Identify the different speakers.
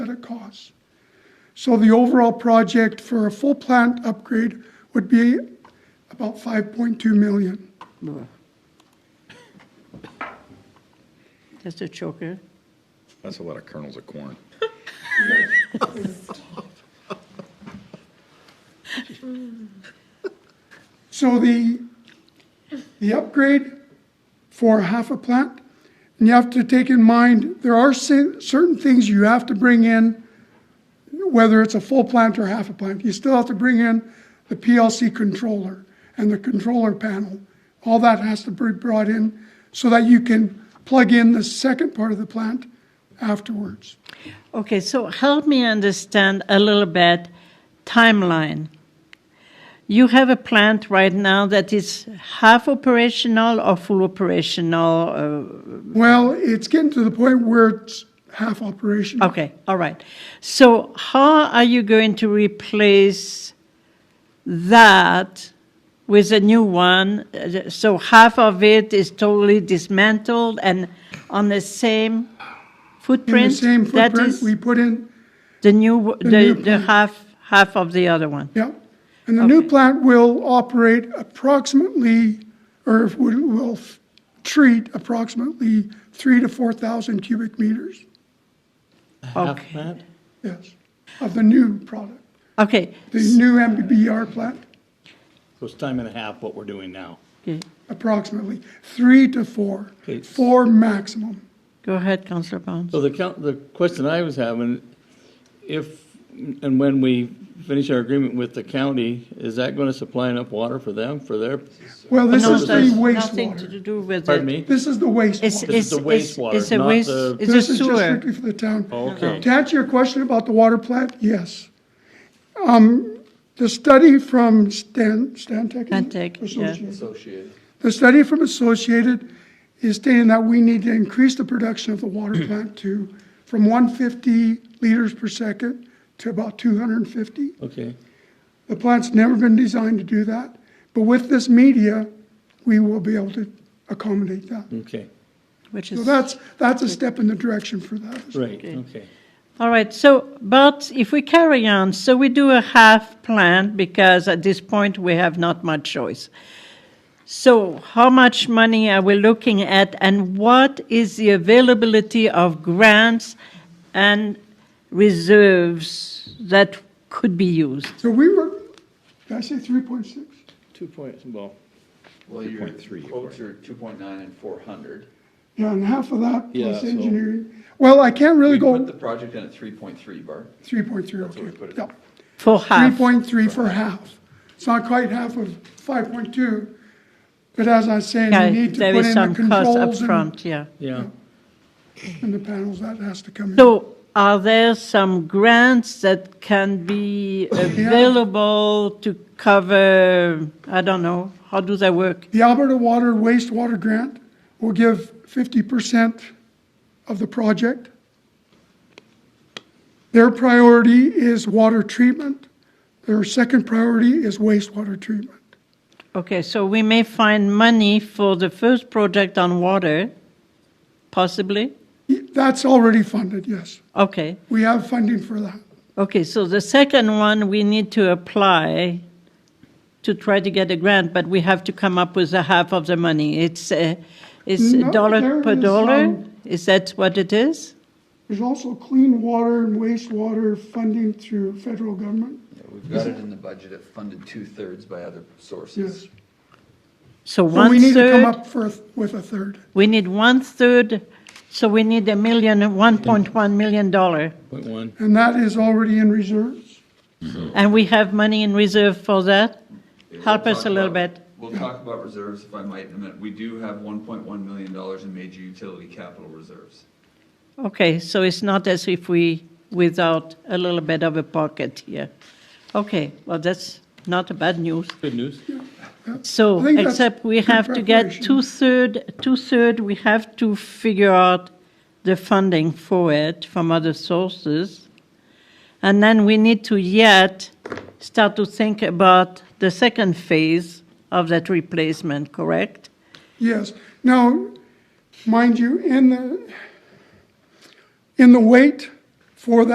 Speaker 1: it costs. So the overall project for a full plant upgrade would be about 5.2 million.
Speaker 2: That's a choker.
Speaker 3: That's a lot of kernels of corn.
Speaker 1: So the, the upgrade for half a plant, and you have to take in mind, there are cer- certain things you have to bring in, whether it's a full plant or half a plant. You still have to bring in the PLC controller and the controller panel. All that has to be brought in so that you can plug in the second part of the plant afterwards.
Speaker 2: Okay, so help me understand a little bit timeline. You have a plant right now that is half operational or full operational. uh,
Speaker 1: Well, it's getting to the point where it's half
Speaker 2: Uh,
Speaker 1: operational.
Speaker 2: okay, all right. So how are you going to replace that with a new one? Uh, So half of it is totally dismantled and on the same
Speaker 1: In
Speaker 2: footprint.
Speaker 1: the same
Speaker 2: That
Speaker 1: footprint,
Speaker 2: is-
Speaker 1: we put in
Speaker 2: The new,
Speaker 1: new
Speaker 2: the, the half, half of the other one.
Speaker 1: Yeah, and the new
Speaker 2: Okay.
Speaker 1: plant will operate approximately, or will, will f- treat approximately three to four thousand cubic meters,
Speaker 2: Okay.
Speaker 1: yes, of the new product,
Speaker 2: Okay.
Speaker 1: the new
Speaker 2: uh,
Speaker 1: MBBR plant,
Speaker 4: So it's time and a half what we're doing now.
Speaker 2: Okay.
Speaker 1: approximately, three to four,
Speaker 4: Okay.
Speaker 1: four maximum.
Speaker 2: Go ahead, Councillor Barnes.
Speaker 4: So the count, the question I was having, if and when we finish our agreement with the county, is that going to supply enough water for them, for their,
Speaker 1: Well, this
Speaker 2: No,
Speaker 1: is the
Speaker 2: there's Nothing to
Speaker 1: wastewater,
Speaker 2: do with
Speaker 4: pardon
Speaker 2: it.
Speaker 4: me?
Speaker 1: this is the
Speaker 2: It's,
Speaker 1: wastewater.
Speaker 4: This
Speaker 2: it's,
Speaker 4: is the
Speaker 2: it's,
Speaker 4: wastewater,
Speaker 2: it's a
Speaker 4: not
Speaker 2: waste,
Speaker 4: the-
Speaker 2: it's a
Speaker 1: This is just
Speaker 2: sewer.
Speaker 1: strictly for the town.
Speaker 4: Okay.
Speaker 1: To answer your question about the water plant, yes. Um, The study from Stan, Stantec? is it?
Speaker 2: Stantec, yeah.
Speaker 1: Associated. The study from Associated is stating that we need to increase the production of the water plant to, from 150 liters per second to about 250.
Speaker 4: Okay,
Speaker 1: The plant's never been designed to do that, but with this media, we will be able to accommodate that.
Speaker 4: okay,
Speaker 2: Which
Speaker 1: So
Speaker 2: is,
Speaker 1: that's, that's a step in the direction for that.
Speaker 4: right, okay.
Speaker 2: all right, so, but if we carry on, so we do a half plant because at this point we have not much choice. So how much money are we looking at and what is the availability of grants and reserves that could be used?
Speaker 1: So we were, did I say 3.6?
Speaker 4: Two points, well.
Speaker 5: Well, your
Speaker 3: 3.3,
Speaker 5: quotes are two point nine and four hundred.
Speaker 1: Yeah, and half of that
Speaker 4: Yeah,
Speaker 1: plus
Speaker 4: so-
Speaker 1: engineering. Well, I can't really
Speaker 5: We put
Speaker 1: go
Speaker 5: the project in at three point three, Bart.
Speaker 1: 3.3,
Speaker 5: what we put
Speaker 1: okay.
Speaker 5: it
Speaker 1: Yeah.
Speaker 5: in.
Speaker 2: For half?
Speaker 1: 3.3 for half. It's not quite half of 5.2, but as I was saying,
Speaker 2: Yeah,
Speaker 1: you need to
Speaker 2: there
Speaker 1: put
Speaker 2: is
Speaker 1: in the
Speaker 2: some cost up
Speaker 1: controls and-
Speaker 2: front. yeah.
Speaker 4: Yeah,
Speaker 1: and the panels, that has to come in.
Speaker 2: So are there some grants that can be available to cover, I don't know, how do they work?
Speaker 1: The Alberta Water Wastewater Grant will give 50% of the project. Their priority is water treatment. Their second priority is wastewater treatment.
Speaker 2: Okay, so we may find money for the first project on water, possibly?
Speaker 1: That's already funded, yes.
Speaker 2: Okay,
Speaker 1: We have funding for that.
Speaker 2: okay, so the second one, we need to apply to try to get a grant, but we have to come up with a half of the money. It's, uh, it's
Speaker 1: No,
Speaker 2: dollar
Speaker 1: there
Speaker 2: per
Speaker 1: is,
Speaker 2: dollar?
Speaker 1: um,
Speaker 2: Is that what it is?
Speaker 1: There's also clean water and wastewater funding through federal government.
Speaker 5: Yeah, We've got it in the budget, it funded two-thirds by other sources.
Speaker 1: Yes.
Speaker 2: So
Speaker 1: But we
Speaker 2: one
Speaker 1: need to come
Speaker 2: third,
Speaker 1: up for, a- with a third.
Speaker 2: we need one third, so we need a million, one point one million dollar.
Speaker 4: point one.
Speaker 1: And that is already in reserves.
Speaker 2: And we have money in reserve for that?
Speaker 5: We'll
Speaker 2: Help us
Speaker 5: talk
Speaker 2: a little
Speaker 5: about-
Speaker 2: bit.
Speaker 5: We'll talk about reserves if I might in a minute. We do have one point one million dollars in major utility capital reserves.
Speaker 2: Okay, so it's not as if we, without a little bit of a pocket here. Okay, well, that's not a bad news.
Speaker 4: Good news.
Speaker 2: So,
Speaker 1: I think that's
Speaker 2: except we
Speaker 1: good
Speaker 2: have to get
Speaker 1: preparation.
Speaker 2: two-third, two-third, we have to figure out the funding for it from other sources. And then we need to yet start to think about the second phase of that replacement, correct?
Speaker 1: Yes. Now, mind you, in the, in the wait for that.